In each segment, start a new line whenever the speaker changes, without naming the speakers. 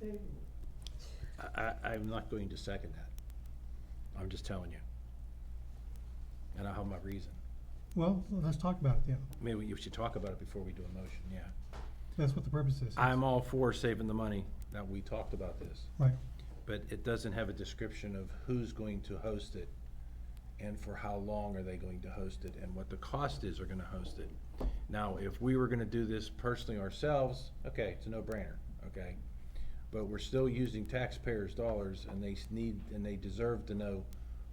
favorable.
I, I, I'm not going to second that. I'm just telling you. And I have my reason.
Well, let's talk about it then.
Maybe we should talk about it before we do a motion, yeah.
That's what the purpose is.
I'm all for saving the money, that we talked about this,
Right.
but it doesn't have a description of who's going to host it and for how long are they going to host it and what the cost is are gonna host it. Now, if we were gonna do this personally ourselves, okay, it's a no-brainer, okay? But we're still using taxpayers' dollars and they s- need, and they deserve to know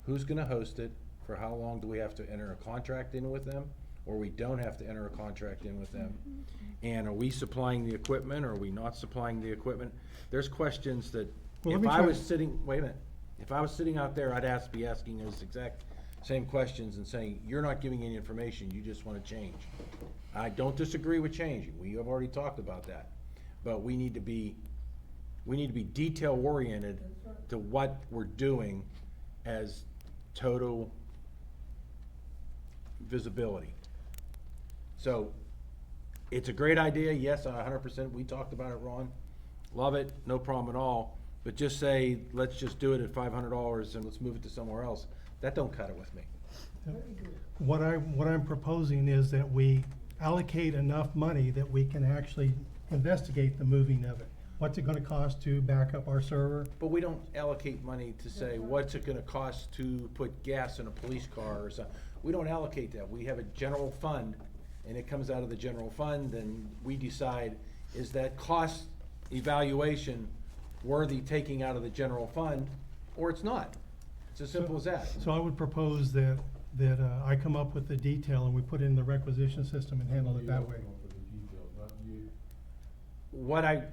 who's gonna host it, for how long do we have to enter a contract in with them? Or we don't have to enter a contract in with them? And are we supplying the equipment or are we not supplying the equipment? There's questions that,
Well, let
if
me
I
try-
was sitting, wait a minute, if I was sitting out there, I'd ask, be asking those exact same questions and saying, you're not giving any information, you just wanna change. I don't disagree with changing, we have already talked about that, but we need to be, we need to be detail oriented to what we're doing as total visibility. So, it's a great idea, yes, a hundred percent, we talked about it, Ron, love it, no problem at all, but just say, let's just do it at five hundred dollars and let's move it to somewhere else, that don't cut it with me.
Very good.
What I, what I'm proposing is that we allocate enough money that we can actually investigate the moving of it. What's it gonna cost to back up our server?
But we don't allocate money to say, what's it gonna cost to put gas in a police car or something. We don't allocate that. We have a general fund, and it comes out of the general fund, and we decide, is that cost evaluation worthy taking out of the general fund, or it's not? It's as simple as that.
So I would propose that, that uh, I come up with the detail and we put it in the requisition system and handle it that way.
What I,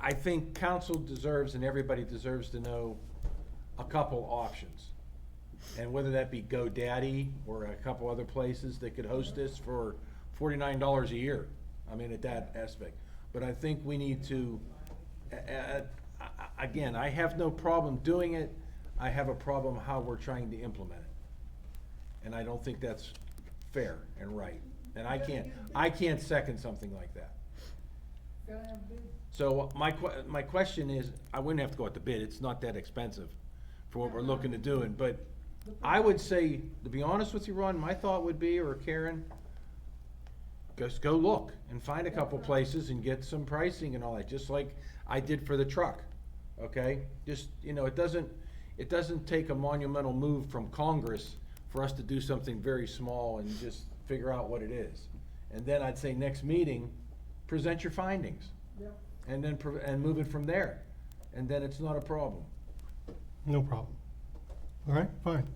I think council deserves and everybody deserves to know a couple options. And whether that be GoDaddy or a couple other places that could host this for forty-nine dollars a year. I mean, at that aspect. But I think we need to, a- a- a- again, I have no problem doing it. I have a problem how we're trying to implement it. And I don't think that's fair and right. And I can't, I can't second something like that.
Gotta have big,
So my que- my question is, I wouldn't have to go out to bid, it's not that expensive for what we're looking to do, and, but I would say, to be honest with you, Ron, my thought would be, or Karen, just go look and find a couple places and get some pricing and all that, just like I did for the truck, okay? Just, you know, it doesn't, it doesn't take a monumental move from Congress for us to do something very small and just figure out what it is. And then I'd say next meeting, present your findings
yep.
and then, prov- and move it from there, and then it's not a problem.
No problem. All right, fine.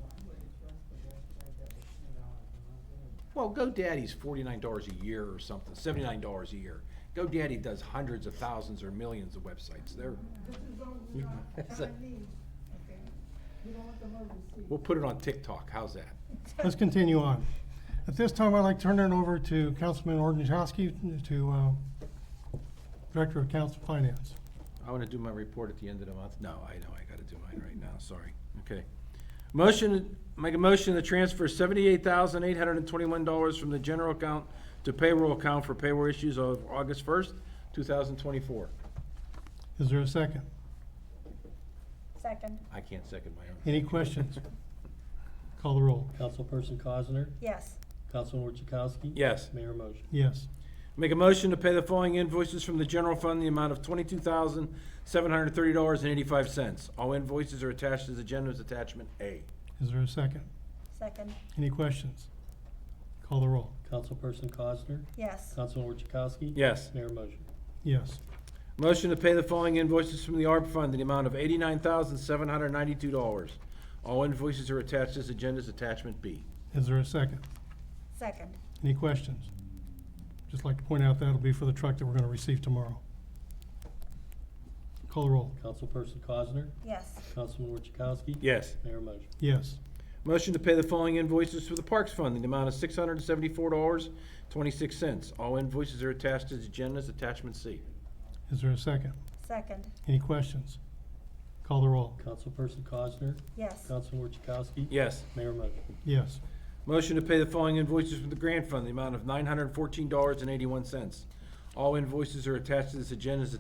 Well, GoDaddy's forty-nine dollars a year or something, seventy-nine dollars a year. GoDaddy does hundreds of thousands or millions of websites, they're,
This is all we are
That's a-
Chinese, okay? We don't want the overseas.
we'll put it on TikTok, how's that?
Let's continue on. At this time, I'd like to turn it over to Councilman Ordnichowski to, uh, Director of Council Finance.
I wanna do my report at the end of the month, no, I know, I gotta do mine right now, sorry, okay. Motion, make a motion to transfer seventy-eight thousand eight hundred and twenty-one dollars from the general account to payroll account for payroll issues of August first, two thousand twenty-four.
Is there a second?
Second,
I can't second my own.
Any questions? Call the roll.
Councilperson Cosner,
yes.
Councilman Orchakowski.
Yes.
Mayor motion.
Yes.
Make a motion to pay the following invoices from the general fund, in the amount of twenty-two thousand, seven hundred and thirty dollars and eighty-five cents. All invoices are attached to the agenda's attachment A.
Is there a second?
Second,
Any questions? Call the roll.
Councilperson Cosner,
yes.
Councilman Orchakowski.
Yes.
Mayor motion.
Yes.
Motion to pay the following invoices from the ARP fund, in the amount of eighty-nine thousand, seven hundred and ninety-two dollars. All invoices are attached to the agenda's attachment B.
Is there a second?
Second,
Any questions? Just like to point out, that'll be for the truck that we're gonna receive tomorrow. Call the roll.
Councilperson Cosner,
yes.
Councilman Orchakowski.
Yes.
Mayor motion.
Yes.
Motion to pay the following invoices for the Parks Fund in the amount of six hundred and seventy-four dollars, twenty-six cents. All invoices are attached to the agenda's attachment C.
Is there a second?
Second,
Any questions? Call the roll.
Councilperson Cosner,
yes.
Councilman Orchakowski.
Yes.
Mayor motion.
Yes.
Motion to pay the following invoices from the grant fund, the amount of nine hundred and fourteen dollars and eighty-one cents. All invoices are attached to this agenda as